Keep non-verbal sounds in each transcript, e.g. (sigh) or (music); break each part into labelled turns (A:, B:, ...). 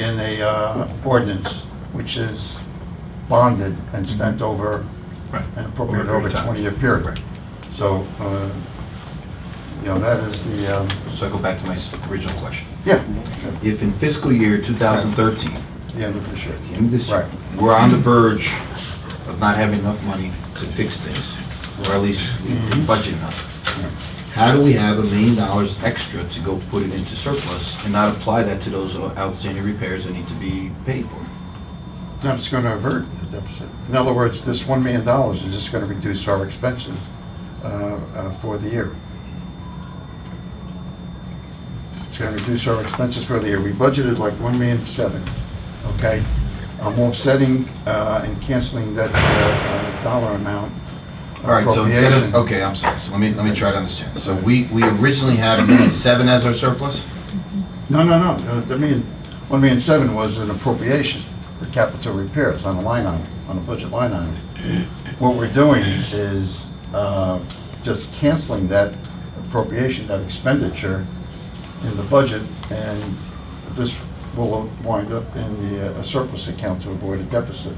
A: in a uh, ordinance, which is bonded and spent over
B: Right.
A: an appropriate
B: Mm-hmm. Over a
A: over
B: period of time.
A: 20-year period.
B: Right.
A: So, uh, you know, that is the, um,
B: So I go back to my s- original question.
A: yeah,
C: If in fiscal year 2013,
A: the end of this year.
C: the end of this year,
A: Right.
C: we're on the verge of not having enough money to fix things, or at least we didn't budget enough, how do we have a million dollars extra to go put it into surplus and not apply that to those uh, outstanding repairs that need to be paid for?
A: No, it's going to avert the deficit. In other words, this $1 million is just going to reduce our expenses uh, uh, for the year. It's going to reduce our expenses for the year. We budgeted like $1 million seven, okay? I'm offsetting uh, and canceling that uh, uh, dollar amount.
C: All right, so instead of,
A: appropriation.
C: okay, I'm sorry, so let me, let me try to understand. So we, we originally had a million seven as our surplus?
A: No, no, no, Uh, the million, one million seven was an appropriation for capital repairs on a line item, on a budget line item. What we're doing is uh, just canceling that appropriation, that expenditure in the budget, and this will wind up in the uh, surplus account to avoid a deficit.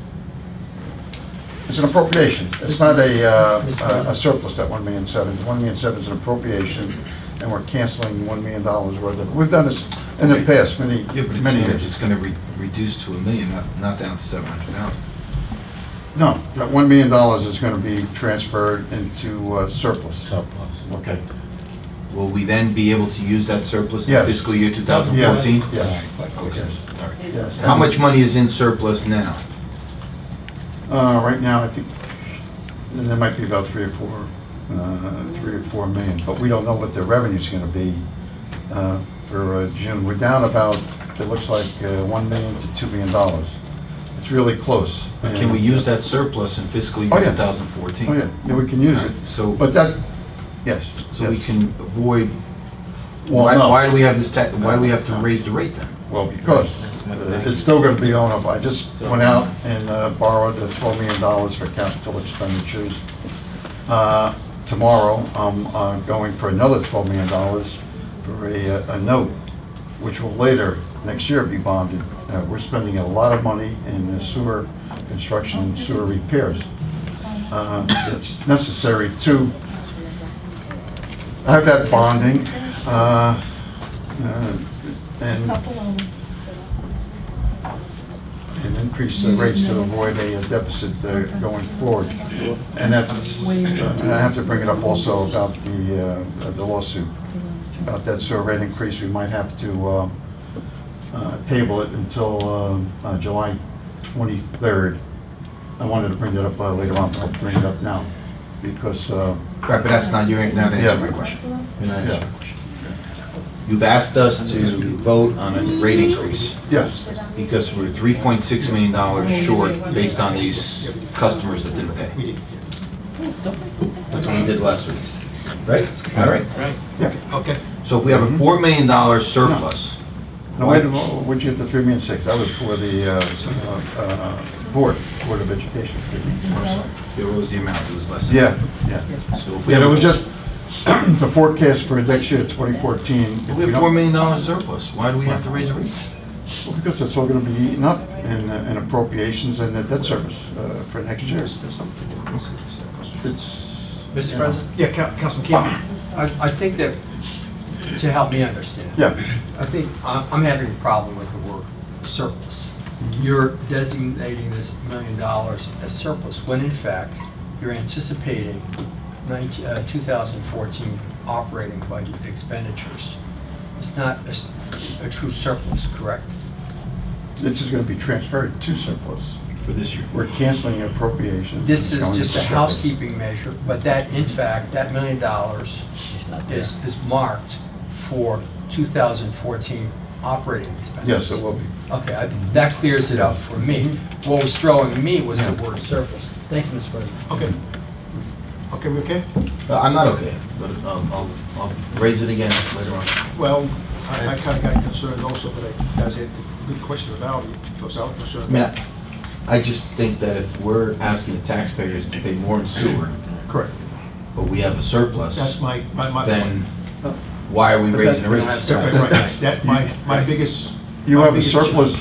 A: It's an appropriation, it's not a, uh, a a surplus, that one million seven. One million seven is an appropriation, and we're canceling one million dollars worth of, we've done this in the past many,
C: Yeah, but
A: many
C: it's,
A: years.
C: it's gonna re- reduce to a million, not, not down to seven hundred thousand.
A: No, that one million dollars is gonna be transferred into uh, surplus.
D: Surplus.
A: Okay.
C: Will we then be able to use that surplus in
A: Yes.
C: fiscal year 2014?
A: Yes,
C: Okay, all right.
A: yes.
C: How much money is in surplus now?
A: Uh, right now, I think, uh, there might be about three or four, uh, three or four million, but we don't know what the revenue's gonna be, uh, for uh, June. We're down about, it looks like, uh, one million to two million dollars. It's really close.
C: Or Can we use that surplus in fiscal
A: Oh,
C: year
A: yeah.
C: 2014?
A: Oh, yeah, yeah, we can use it,
C: So,
A: but that, yes.
C: so we
A: yes.
C: can avoid,
A: Well,
C: why,
A: no.
C: why do we have this, ta- why do we have to
A: No.
C: raise the rate then?
A: Well, because uh, it's still gonna be owned up. I just went out and uh, borrowed the twelve million dollars for capital expenditures. Uh, Tomorrow, I'm uh, going for another twelve million dollars for a, uh, a note, which will later, next year, be bonded. Uh, We're spending a lot of money in sewer construction and sewer repairs. Uh, It's necessary to have that bonding, uh, uh, and and increase the rates to avoid a deficit uh, going forward. And that's, uh, and I have to bring it up also about the, uh, the lawsuit, about that sewer rate increase, we might have to uh, uh, table it until um, uh, July 23rd. I wanted to bring that up uh, later on, but I'll bring it up now, because, uh,
C: Right, but that's not, you're not
A: Yeah.
C: answering my question. You're not answering
A: Yeah.
C: my question. You've asked us to vote on a rate increase.
A: yes,
C: because we're $3.6 million short based on these customers that didn't pay. That's what we did last week, right? All right,
A: yeah.
B: Okay.
C: so if we have a $4 million surplus,
A: Now, wait, a mo- what'd you get the three million six? That was for the uh, uh, uh, Board, Board of Education. three million six.
C: it was the amount, it was less than.
A: Yeah, yeah.
C: So if we
A: Yeah,
C: have,
A: it was
C: a-
A: just (clears throat) the forecast for next year, 2014.
C: if we have $4 million surplus, why do we have to raise the rates?
A: Well, Because it's all going to be eaten up in uh, in appropriations and the debt service uh, for next year. It's.
E: Mr. President?
B: Yeah, Coun- Councilman Keenan.
E: I, I think that, to help me understand.
A: Yeah.
E: I think, I'm, I'm having a problem with the word surplus.
A: Mm-hmm.
E: You're designating this million dollars as surplus, when in fact, you're anticipating nineteen, uh, two thousand fourteen operating budget expenditures. It's not a, s- a true surplus, correct?
A: This is going to be transferred to surplus.
C: For this year.
A: We're canceling appropriations.
E: This is
A: Going to
E: just a
A: surplus.
E: housekeeping measure, but that, in fact, that million dollars is, is marked for 2014 operating expenses.
A: Yes, it Mm-hmm. will be.
E: Okay, I- that clears it up for me. What was throwing me was the word surplus. Thank you, Mr. President.
B: Okay. Okay, we okay?
C: Uh, I'm not okay, but um, I'll, I'll raise it again later on.
B: Well, I kind of got concerned also, but I, guys had good questions about it, because I was concerned.
C: I mean, I- I just think that if we're asking the taxpayers to pay more in sewer,
B: Correct.
C: but we have a surplus,
B: That's my, my, my.
C: then why are we raising the
A: But that-
C: rates?
B: Right, right, right. That, my, my biggest.
A: You
B: my
A: have a
B: biggest-
A: surplus